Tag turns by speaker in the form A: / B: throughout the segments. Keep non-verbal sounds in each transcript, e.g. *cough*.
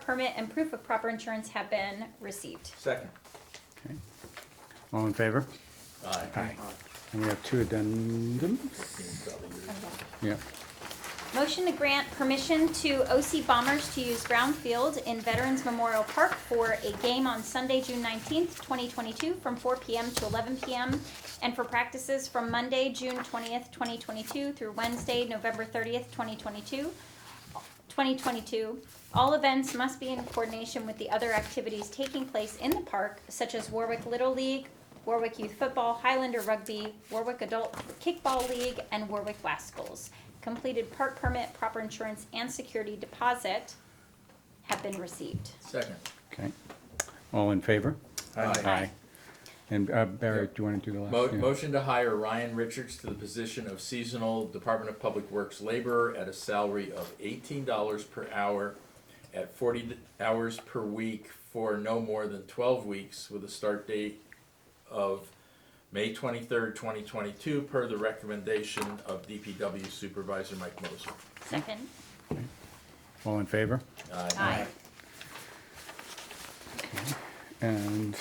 A: permit and proof of proper insurance have been received.
B: Second.
C: All in favor?
B: Aye.
C: Aye. And we have two addendums? Yeah.
A: Motion to grant permission to OC Bombers to use Brown Field in Veterans Memorial Park for a game on Sunday, June nineteenth, twenty twenty-two, from four PM to eleven PM, and for practices from Monday, June twentieth, twenty twenty-two, through Wednesday, November thirtieth, twenty twenty-two. 2022, all events must be in coordination with the other activities taking place in the park, such as Warwick Little League, Warwick Youth Football, Highlander Rugby, Warwick Adult Kickball League, and Warwick Lascals. Completed park permit, proper insurance, and security deposit have been received.
B: Second.
C: Okay. All in favor?
B: Aye.
C: And uh, Barry, do you want to do the last?
B: Mo-
C: Yeah.
B: Motion to hire Ryan Richards to the position of seasonal Department of Public Works laborer at a salary of eighteen dollars per hour at forty d- hours per week for no more than twelve weeks with a start date of May twenty-third, twenty twenty-two, per the recommendation of DPW Supervisor Mike Moser.
A: Second.
C: All in favor?
A: Aye.
C: And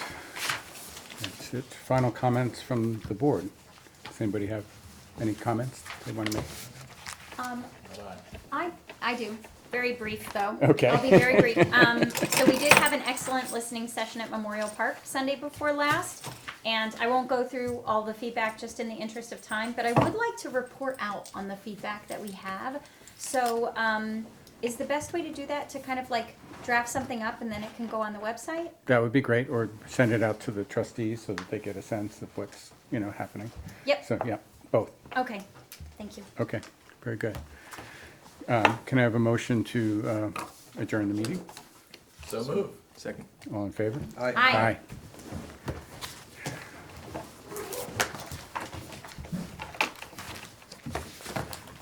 C: that's it. Final comments from the board. Does anybody have any comments they want to make?
A: Um,
B: Aye.
A: I, I do. Very brief, though.
C: Okay.
A: I'll be very
C: *laughs*
A: brief. Um, so we did have an excellent listening session at Memorial Park Sunday before last. And I won't go through all the feedback just in the interest of time, but I would like to report out on the feedback that we have. So, um, is the best way to do that to kind of like draft something up and then it can go on the website?
C: That would be great, or send it out to the trustees so that they get a sense of what's, you know, happening.
A: Yep,
C: So, yeah, both.
A: okay, thank you.
C: Okay, very good. Um, Can I have a motion to uh, adjourn the meeting?
B: So move.
D: Second.
C: All in favor?
A: Aye.
C: Aye.